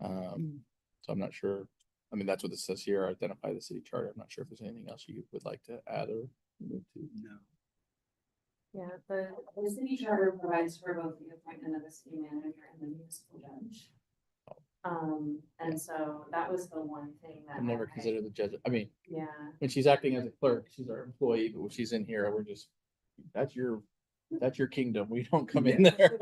Um, so I'm not sure, I mean, that's what this says here, identify the city charter, I'm not sure if there's anything else you would like to add or move to. No. Yeah, the, the city charter provides for both the appointment of the city manager and the municipal judge. Um, and so that was the one thing that. I've never I- considered the judge, I mean, Yeah, when she's acting as a clerk, she's our employee, but when she's in here, we're just, that's your, that's your kingdom, we don't come in there.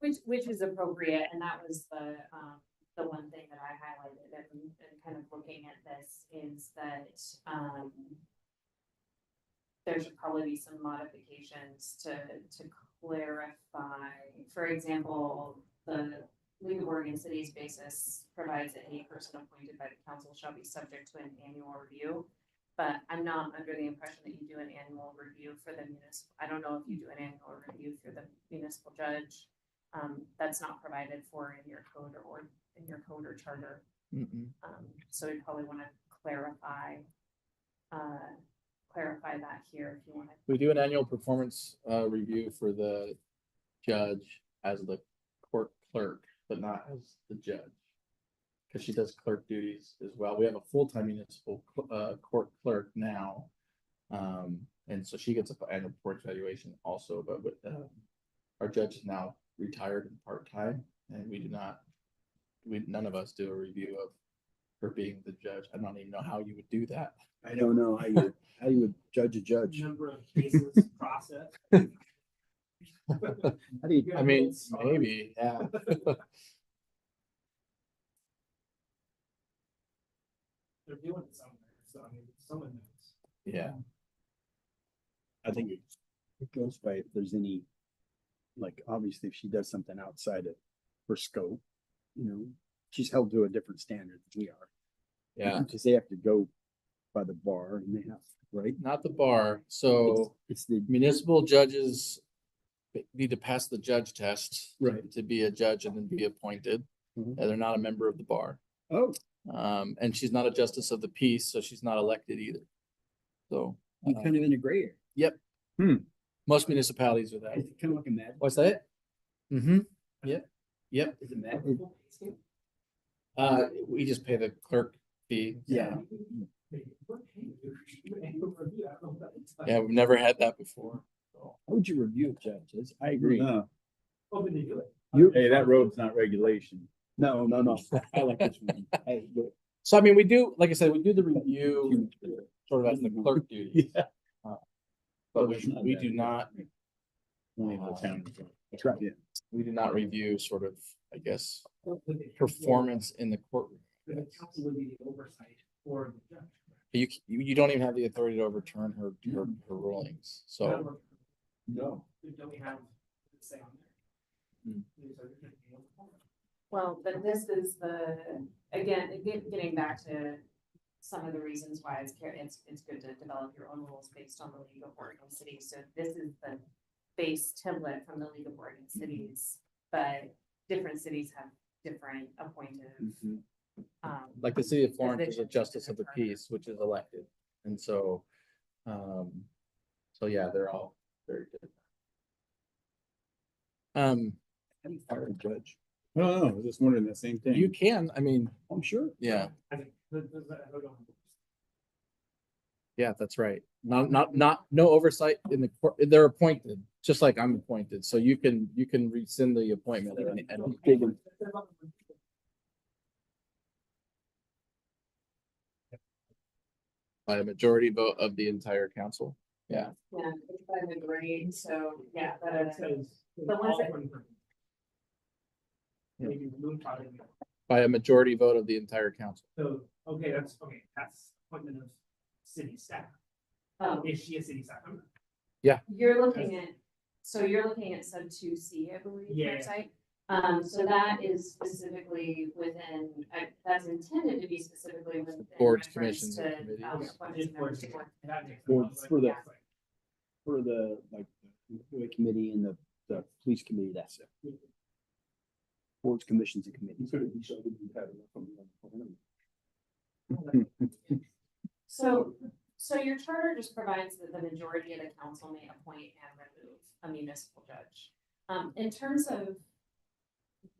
which, which is appropriate, and that was the, um, the one thing that I highlighted and, and kind of looking at this is that, um. There should probably be some modifications to, to clarify, for example, the League of Oregon Cities basis provides that any person appointed by the council shall be subject to an annual review. But I'm not under the impression that you do an annual review for the municipal, I don't know if you do an annual review for the municipal judge. Um, that's not provided for in your code or- or in your code or charter. Mm-mm. Um, so we probably want to clarify, uh, clarify that here if you want to. We do an annual performance, uh, review for the judge as the court clerk, but not as the judge. Cause she does clerk duties as well. We have a full-time municipal, cl- uh, court clerk now. Um, and so she gets an annual report evaluation also, but with, uh, our judge is now retired and part-time and we do not, we, none of us do a review of her being the judge. I don't even know how you would do that. I don't know how you, how you would judge a judge. Number of cases processed. How do you, Yeah, I mean, it's- maybe, yeah. They're doing it somewhere, so I mean, someone knows. Yeah, I think it- it goes by if there's any, like, obviously if she does something outside of her scope, you know, she's held to a different standard than we are. yeah. Because they have to go by the bar and they have, right? Not the bar, so It's the, municipal judges need to pass the judge test. Right. To be a judge and then be appointed, and Mhm. they're not a member of the bar. oh, Um, and she's not a justice of the peace, so she's not elected either. So, I'm uh, kind of in a gray area. most municipalities are that. Is it kind of like a med? What's that? Mm-hmm, Is it med? uh, we just pay the clerk fee. Yeah. Yeah, we've never had that before. How would you review judges? I agree. No, Hoping to do it. You- hey, that road's not regulation. No, no, no. I like this one. Hey, look, So I mean, we do, like I said, we do the review sort of as the clerk duty. But we, we do not only the town. Uh, That's right. Yeah. we do not review sort of, I guess, performance in the courtroom. The council would be the oversight for the judge. You, c- you you don't even have the authority to overturn her, her, her rulings, so. Don't No. we- Don't we have the say on there? Hmm. There's a- there's a- Well, but this is the, again, it get- getting back to some of the reasons why it's, care- it's, it's good to develop your own rules based on the League of Oregon Cities. So this is the base template from the League of Oregon Cities, but different cities have different appointed, Mm-hmm. um, Like the city of Florence they is a should justice of the determine. peace, which is elected, and so, um, so yeah, they're all very good. Um, How do you fire a judge? I don't know, I was just wondering that same thing. you can, I mean, I'm sure. yeah, I think, but- but- but I don't know. yeah, that's right. Not, not, not, no oversight in the court, they're appointed, just like I'm appointed, so you can, you can rescind the appointment at any, at any Big one. by a majority vote of the entire council. yeah, it's by the grade, so, yeah, That that is. says. But once it- Maybe remove part of it. by a majority vote of the entire council. So, okay, that's, okay, that's appointment of city staff. Oh, Is she a city staff member? You're looking at, so you're looking at sub two C, I believe, Yeah. website. Um, so that is specifically within, uh, that's intended to be specifically within. Boards, reference commissions, to, and committees. um, Yeah, appointments it's and members boards. of boards. That makes Boards sense. for the- Yeah. For the, like, the highway committee and the, the police committee, that's it. Boards, commissions and committees. So, so your charter just provides that the majority of the council may appoint and remove a municipal judge. Um, in terms of